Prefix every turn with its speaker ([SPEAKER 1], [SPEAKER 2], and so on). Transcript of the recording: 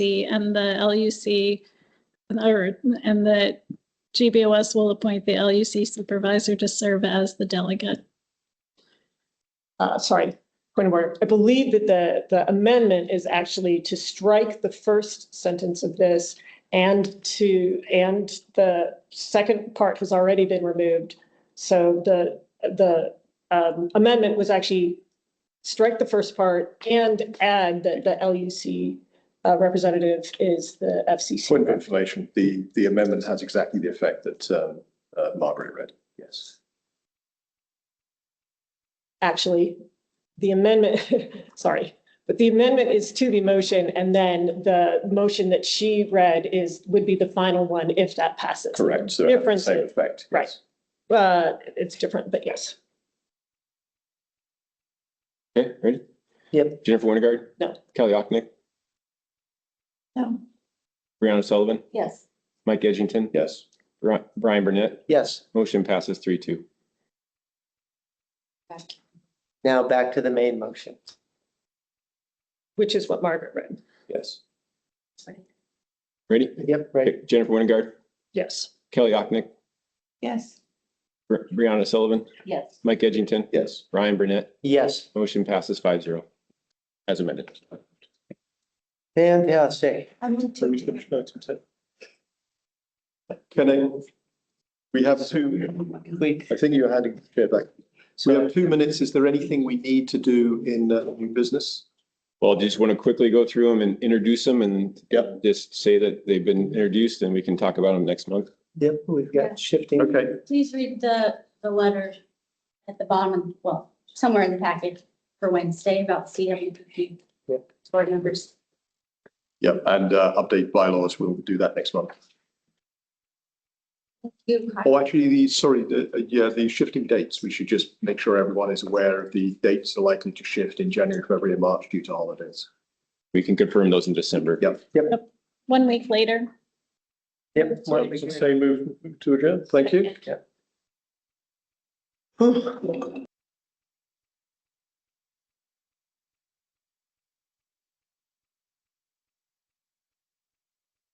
[SPEAKER 1] and the LUC, or, and that GBOS will appoint the LUC supervisor to serve as the delegate.
[SPEAKER 2] uh, sorry, point of order. I believe that the, the amendment is actually to strike the first sentence of this and to, and the second part has already been removed. So the, the um, amendment was actually strike the first part and add that the LUC uh, representative is the
[SPEAKER 3] Point of
[SPEAKER 2] FCC.
[SPEAKER 3] information, the, the amendment has exactly the effect that um, uh, Margaret read, yes.
[SPEAKER 2] Actually, the amendment, sorry, but the amendment is to the motion and then the motion that she read is, would be the final one if that passes.
[SPEAKER 3] Correct, so it has the
[SPEAKER 2] Difference
[SPEAKER 3] same
[SPEAKER 2] is-
[SPEAKER 3] effect.
[SPEAKER 2] right.
[SPEAKER 3] yes.
[SPEAKER 2] Uh, it's different, but yes.
[SPEAKER 4] Okay, ready?
[SPEAKER 2] Yep.
[SPEAKER 4] Jennifer Winterguard?
[SPEAKER 2] No.
[SPEAKER 4] Kelly Ocknick?
[SPEAKER 1] No.
[SPEAKER 4] Brianna Sullivan?
[SPEAKER 5] Yes.
[SPEAKER 4] Mike Edgington?
[SPEAKER 3] Yes,
[SPEAKER 4] Bri- Brian Burnett?
[SPEAKER 6] Yes,
[SPEAKER 4] Motion passes three two.
[SPEAKER 6] now back to the main motion.
[SPEAKER 2] Which is what Margaret read.
[SPEAKER 3] yes,
[SPEAKER 4] Ready?
[SPEAKER 6] Yep, right.
[SPEAKER 4] Okay, Jennifer Winterguard?
[SPEAKER 2] Yes.
[SPEAKER 4] Kelly Ocknick?
[SPEAKER 5] Yes.
[SPEAKER 4] Bri- Brianna Sullivan?
[SPEAKER 5] Yes.
[SPEAKER 4] Mike Edgington?
[SPEAKER 3] yes.
[SPEAKER 4] Brian Burnett?
[SPEAKER 6] Yes,
[SPEAKER 4] Motion passes five zero. As amended.
[SPEAKER 6] fantastic.
[SPEAKER 5] I move
[SPEAKER 3] Can
[SPEAKER 5] to,
[SPEAKER 3] I, we have two,
[SPEAKER 6] Oh We,
[SPEAKER 3] I think you're handing the chair back. We have two minutes. Is there anything we need to do in uh, new business?
[SPEAKER 4] Well, just want to quickly go through them and introduce them and
[SPEAKER 3] Yep.
[SPEAKER 4] just say that they've been introduced and we can talk about them next month.
[SPEAKER 6] yep, we've got shifting.
[SPEAKER 3] Okay,
[SPEAKER 5] please read the, the letter at the bottom, of- well, somewhere in the package for Wednesday about CWPP
[SPEAKER 6] Yeah.
[SPEAKER 5] board members.
[SPEAKER 3] yep, and uh, update bylaws, we'll do that next month.
[SPEAKER 5] You-
[SPEAKER 3] Oh, actually, the, sorry, the, uh, yeah, the shifting dates, we should just make sure everyone is aware of the dates are likely to shift in January, February, and March due to holidays.
[SPEAKER 4] We can confirm those in December.
[SPEAKER 3] Yep.
[SPEAKER 1] One week later.
[SPEAKER 6] Yep. well, we-
[SPEAKER 3] move to adjourn. Thank you.
[SPEAKER 6] Whew.